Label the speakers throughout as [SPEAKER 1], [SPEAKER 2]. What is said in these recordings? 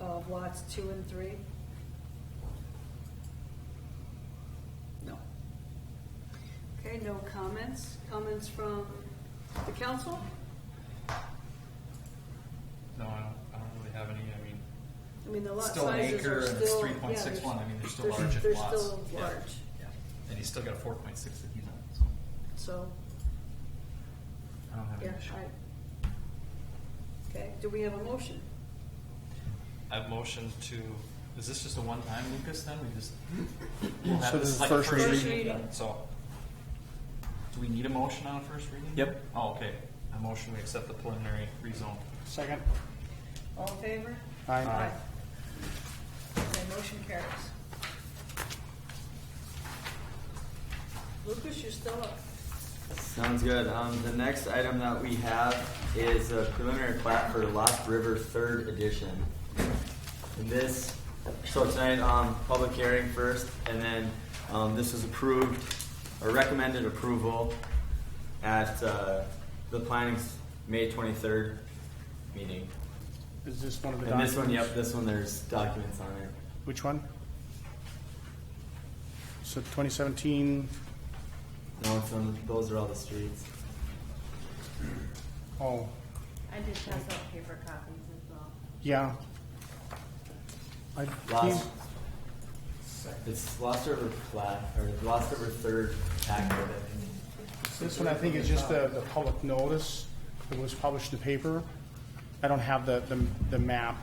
[SPEAKER 1] of lots two and three? No. Okay, no comments. Comments from the council?
[SPEAKER 2] No, I don't, I don't really have any, I mean,
[SPEAKER 1] I mean, the lot
[SPEAKER 2] still an
[SPEAKER 1] sizes
[SPEAKER 2] acre
[SPEAKER 1] are
[SPEAKER 2] and it's
[SPEAKER 1] still.
[SPEAKER 2] three point six one,
[SPEAKER 1] yeah,
[SPEAKER 2] I mean, they're still
[SPEAKER 1] they're-
[SPEAKER 2] large
[SPEAKER 1] They're
[SPEAKER 2] in lots.
[SPEAKER 1] still
[SPEAKER 2] Yeah.
[SPEAKER 1] large,
[SPEAKER 2] Yeah, and he's still got a four point six that he's on, so
[SPEAKER 1] so,
[SPEAKER 2] I don't have
[SPEAKER 1] yeah,
[SPEAKER 2] any issue.
[SPEAKER 1] I. Okay, do we have a motion?
[SPEAKER 2] I've motioned to, is this just a one time, Lucas, then, we just?
[SPEAKER 3] Yeah,
[SPEAKER 2] we'll have
[SPEAKER 3] so this is
[SPEAKER 2] like
[SPEAKER 3] first
[SPEAKER 1] reading.
[SPEAKER 2] yeah, So, do we need a motion on a first reading?
[SPEAKER 3] Yep.
[SPEAKER 2] Oh, okay, a motion, we accept the preliminary rezone.
[SPEAKER 3] Second.
[SPEAKER 1] All in favor?
[SPEAKER 3] Aye.
[SPEAKER 1] Okay, motion carries. Lucas, you're still up.
[SPEAKER 4] Sounds good. Um, the next item that we have is a preliminary plat for Lost River Third Edition. And this, so tonight, um, public hearing first, and then, um, this was approved, or recommended approval at, uh, the planning's May twenty-third meeting.
[SPEAKER 3] Is this one of the
[SPEAKER 4] And
[SPEAKER 3] documents?
[SPEAKER 4] this one, yep, this one, there's documents on it.
[SPEAKER 3] Which one? So 2017,
[SPEAKER 4] No, it's on, those are all the streets.
[SPEAKER 3] oh,
[SPEAKER 5] I did pass out paper copies as well.
[SPEAKER 3] yeah. I
[SPEAKER 4] Lost.
[SPEAKER 3] can't-
[SPEAKER 4] It's Lost River plat, or Lost River Third packet, I think.
[SPEAKER 3] This one, I think, is just the, the public notice that was published in the paper. I don't have the, the, the map.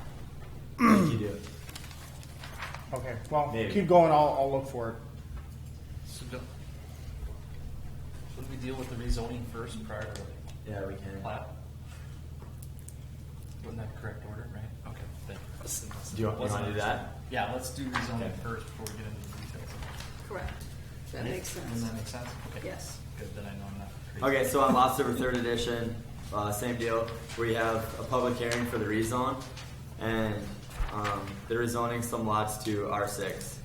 [SPEAKER 4] You do.
[SPEAKER 3] Okay, well,
[SPEAKER 4] Maybe.
[SPEAKER 3] keep going, I'll, I'll look for it.
[SPEAKER 2] So do, should we deal with the rezoning first prior to the
[SPEAKER 4] Yeah, we can.
[SPEAKER 2] plat? Wouldn't that correct order, right? Okay, thank you. Listen, listen.
[SPEAKER 4] Do you want- you
[SPEAKER 2] Wasn't
[SPEAKER 4] wanna do that?
[SPEAKER 2] Yeah, let's do rezoning
[SPEAKER 4] Okay.
[SPEAKER 2] first before we get into the details.
[SPEAKER 1] Correct. That makes sense.
[SPEAKER 2] Doesn't that make sense? Okay.
[SPEAKER 1] Yes.
[SPEAKER 2] Good, then I know I'm not crazy.
[SPEAKER 4] Okay, so on Lost River Third Edition, uh, same deal. We have a public hearing for the rezone, and um, they're rezoning some lots to R six.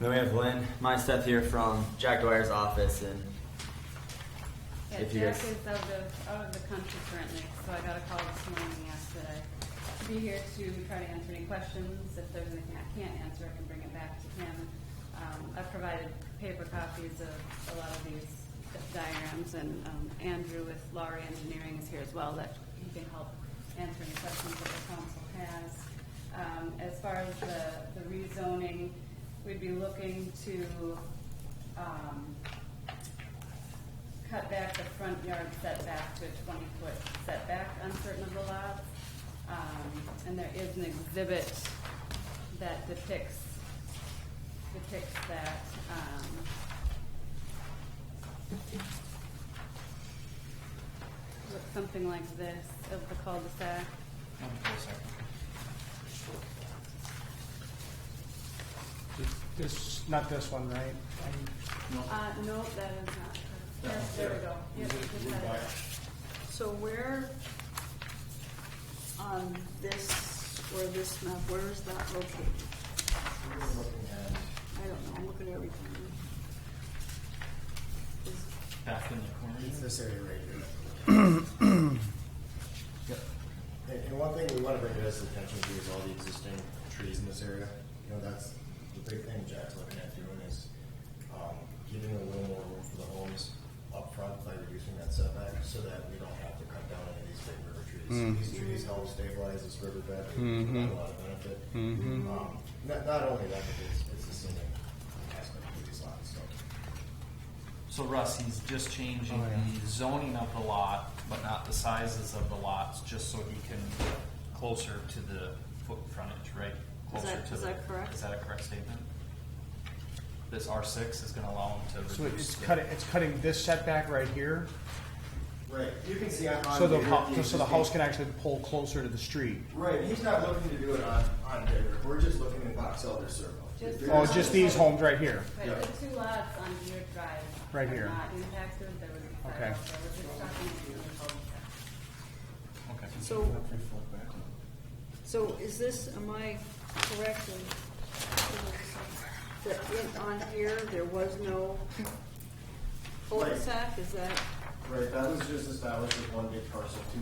[SPEAKER 4] Then we have Lynn, my step here from Jack Dwyer's office, and
[SPEAKER 5] Yeah,
[SPEAKER 4] If you
[SPEAKER 5] Jack
[SPEAKER 4] guys-
[SPEAKER 5] is out of, out of the country currently, so I got a call this morning, and asked that I be here to try to answer any questions. If there's anything I can't answer, I can bring it back to him. Um, I've provided paper copies of a lot of these diagrams, and, um, Andrew with Laurie Engineering is here as well, that he can help answer any questions that the council has. Um, as far as the, the rezoning, we'd be looking to, um, cut back the front yard setback to a twenty-foot setback on certain of the lots. Um, and there is an exhibit that depicts, depicts that, um, looks something like this of the
[SPEAKER 2] Hold
[SPEAKER 5] cul-de-sac.
[SPEAKER 2] on for a second.
[SPEAKER 3] This, not this one, right? I-
[SPEAKER 5] Uh, no, that is not. Yes, there we go. Yep, just that.
[SPEAKER 1] So where
[SPEAKER 5] um,
[SPEAKER 1] on this, or this map, where is that located? I don't know, I'm looking at everything. Is-
[SPEAKER 2] Back in the corner.
[SPEAKER 6] It's this area right here.
[SPEAKER 2] Yep.
[SPEAKER 6] And, and one thing we wanna bring to this attention to is all the existing trees in this area. You know, that's the big thing Jack's looking at doing is, um, giving a little more room for the homes up front by reducing that setback so that we don't have to cut down any of these big river trees. These trees help stabilize this riverbed, they provide a lot of benefit. Um, Not, not only that, but it's, it's the same aspect of these lots, so.
[SPEAKER 2] So Russ, he's just changing
[SPEAKER 3] Oh, yeah.
[SPEAKER 2] the zoning of the lot, but not the sizes of the lots, just so he can get closer to the foot frontage, right?
[SPEAKER 1] Is that-
[SPEAKER 2] Closer to
[SPEAKER 1] is
[SPEAKER 2] the-
[SPEAKER 1] that correct?
[SPEAKER 2] Is that a correct statement? This R six is gonna allow him to
[SPEAKER 3] So
[SPEAKER 2] reduce.
[SPEAKER 3] it's
[SPEAKER 2] the-
[SPEAKER 3] cutting, it's cutting this setback right here,
[SPEAKER 6] Right, you can see on.
[SPEAKER 3] so the,
[SPEAKER 6] on
[SPEAKER 3] hou- so the
[SPEAKER 6] existing-
[SPEAKER 3] house can actually pull closer to the street.
[SPEAKER 6] Right, he's not looking to do it on, on Digger, we're just looking at Box Elder Circle.
[SPEAKER 5] Just-
[SPEAKER 6] Digger's-
[SPEAKER 3] Oh, just these homes right here.
[SPEAKER 6] Yeah.
[SPEAKER 5] But the two lots on Deer Drive.
[SPEAKER 3] Right
[SPEAKER 5] are
[SPEAKER 3] here.
[SPEAKER 5] Not impacted, there was. a
[SPEAKER 3] Okay.
[SPEAKER 5] sidewalk, there was just talking to the cul-de-sac.
[SPEAKER 2] Okay.
[SPEAKER 1] So, so is this, am I correct in, that in- on here, there was no cul-de-sac, is that?
[SPEAKER 6] Right, that was just established as one big parcel, two